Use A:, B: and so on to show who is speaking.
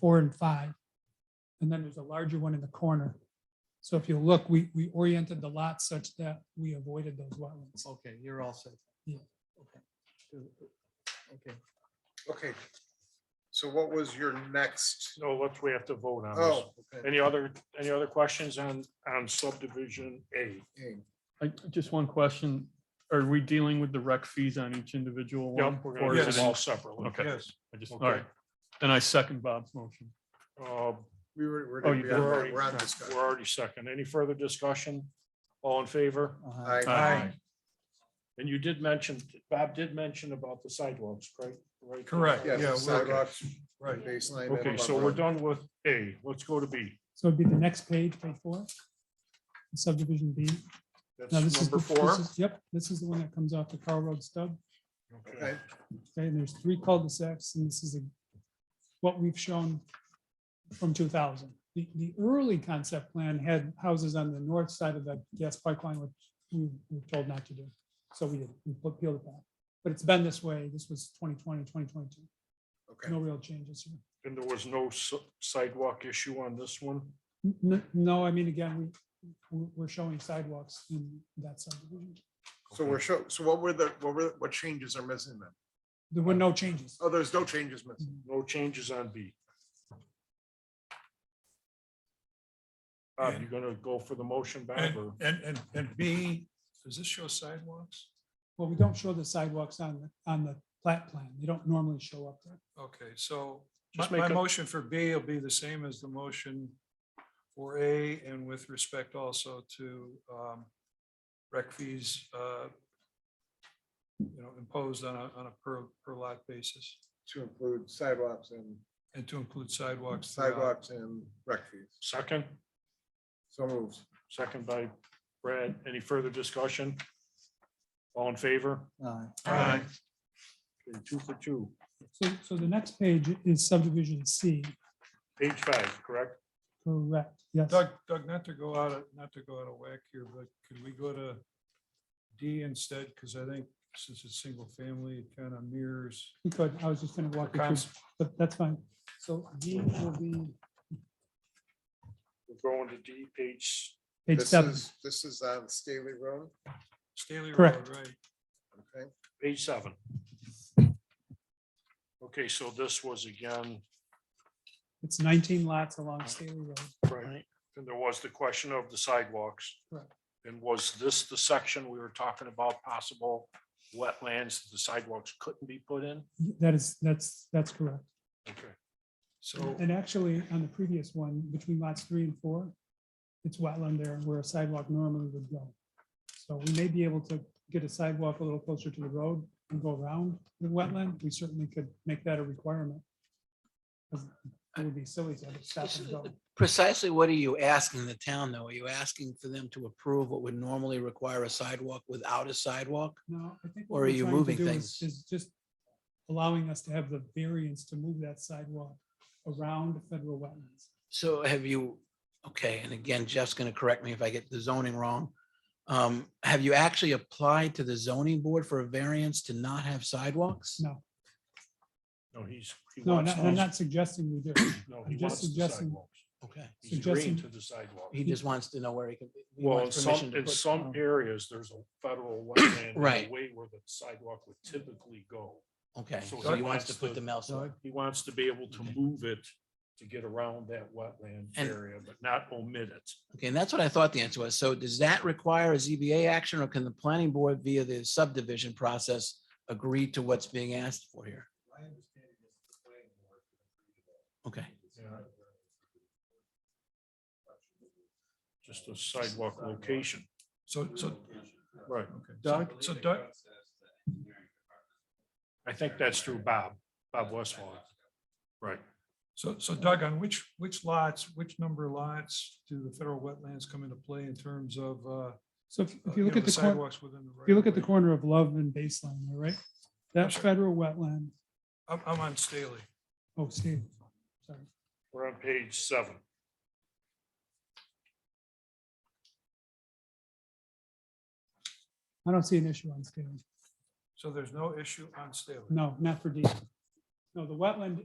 A: four and five. And then there's a larger one in the corner. So if you look, we, we oriented the lot such that we avoided those wetlands.
B: Okay, you're all set.
A: Yeah.
B: Okay. Okay.
C: Okay. So what was your next?
D: No, let's, we have to vote on this.
C: Oh, okay.
D: Any other, any other questions on, on subdivision A?
C: hey,
E: I, just one question. Are we dealing with the rec fees on each individual one?
D: Yep, we're
E: or
D: gonna
E: is
D: do
E: it
D: them all separately.
E: Okay.
D: Yes.
E: I just, all
D: Okay.
E: right. Then I second Bob's motion.
D: Uh,
C: We were, we're
E: Oh,
C: gonna
E: you
C: be
D: We're
C: on-
D: already,
C: we're on
D: we're
C: discussion.
D: already second. Any further discussion? All in favor?
C: Aye.
E: Aye.
D: And you did mention, Bob did mention about the sidewalks, right? Right.
B: Correct,
C: Yeah,
B: Yeah, we're-
C: sidewalks,
B: Right.
C: baseline.
D: Okay,
C: minimum
D: so we're
C: road.
D: done with A. Let's go to B.
A: So it'd be the next page, page four. Subdivision B. Now, this
D: That's
A: is,
D: number
A: the- this
D: four.
A: is- yep, this is the one that comes off the Carl Road stub.
D: Okay.
C: Okay,
A: Okay, and there's three cul-de-sacs, and this is a- what we've shown from two thousand. The, the early concept plan had houses on the north side of the gas pipeline, which we were told not to do. So we didn't, we put- peeled it back. But it's been this way. This was 2020, 2022.
C: okay.
A: No real changes here.
D: And there was no s- sidewalk issue on this one?
A: N- n- No, I mean, again, we, we're- we're showing sidewalks in that subdivision.
C: So we're show, so what were the, what were, what changes are missing then?
A: There were no changes.
C: Oh, there's no changes missing.
D: No changes on B. Bob, you gonna go for the motion back
B: And,
D: or?
B: and, and, and B, does this show sidewalks?
A: Well, we don't show the sidewalks on, the on the plat plan. They don't normally show up there.
B: Okay, so my,
D: Just
B: my
D: make a-
B: motion for B will be the same as the motion for A and with respect also to um, rec fees, uh, you know, imposed on a, on a per, per lot basis
C: To include sidewalks and
B: and to include sidewalks. throughout.
C: sidewalks and rec fees.
D: Second,
C: So moved.
D: second by Brad. Any further discussion? All in favor?
F: Uh,
B: Aye.
D: Okay, Two for two.
A: So, so the next page is subdivision C,
D: Page five, correct?
A: correct? Yes.
B: Doug, Doug, not to go out, of not to go out of whack here, but could we go to D instead? Because I think since it's single family, it kind of mirrors.
A: You could, I was just gonna
B: the
A: walk you through,
B: concept.
A: but that's fine. So D will be
D: We're going to D, page,
A: page
C: This
A: seven.
C: is, this is on Staley Road,
B: Staley Road,
A: Correct.
B: right?
C: okay?
D: page seven. Okay, so this was again,
A: It's nineteen lots along Staley Road.
D: right, and there was the question of the sidewalks.
A: Correct.
D: And was this the section we were talking about possible wetlands, the sidewalks couldn't be put in?
A: That is, that's, that's correct.
D: Okay.
B: So,
A: And actually, on the previous one, between lots three and four, it's wetland there where a sidewalk normally would go. So we may be able to get a sidewalk a little closer to the road and go around the wetland. We certainly could make that a requirement. 'Cause It would be silly to have it stop and go.
F: Precisely what are you asking the town, though? Are you asking for them to approve what would normally require a sidewalk without a sidewalk?
A: No, I think.
F: Or
A: what
F: are
A: we're
F: you
A: trying to
F: moving
A: do is-
F: things?
A: Is just allowing us to have the variance to move that sidewalk around federal wetlands.
F: So have you, okay, and again, Jeff's going to correct me if I get the zoning wrong. Um, Have you actually applied to the zoning board for a variance to not have sidewalks?
A: No,
D: No, he's. he
A: no, I'm
D: wants
A: not- I'm
D: those-
A: not suggesting we do.
D: No,
A: I'm
D: he
A: just
D: wants the
A: suggesting-
D: sidewalks.
F: Okay,
D: He's agreeing
A: suggesting-
D: to the sidewalk.
F: he just wants to know where he can. he
D: Well, in
F: wants permission
D: some,
F: to
D: in
F: put-
D: some areas, there's a federal wetland. in a
F: Right.
D: Way where the sidewalk would typically go.
F: Okay,
D: so
F: so
D: he
F: he wants to
D: wants
F: put
D: the-
F: them elsewhere.
D: He wants to be able to
F: Okay.
D: move it to get around that wetland
F: And-
D: area, but not omit it.
F: Okay, and that's what I thought the answer was. So does that require a ZBA action or can the planning board via the subdivision process agree to what's being asked for here? Okay,
D: Just a sidewalk location.
B: so, so,
D: Right.
B: okay.
D: Doug?
B: So Doug,
D: I think that's through Bob, Bob Westfall. Right.
B: so, so Doug, on which, which lots, which number of lots do the federal wetlands come into play in terms of, uh,
A: So if if
B: you
A: you look
B: know,
A: at
B: the
A: the, cor-
B: sidewalks within the.
A: if you look at the
B: right-of-way?
A: corner of Love and Baseline, all right? That's
B: sorry.
A: federal wetland.
B: I'm, I'm on Staley.
A: Oh, Steve, sorry.
D: We're on page seven.
A: I don't see an issue on scale.
B: So there's no issue on Staley.
A: No, not for D. No, the wetland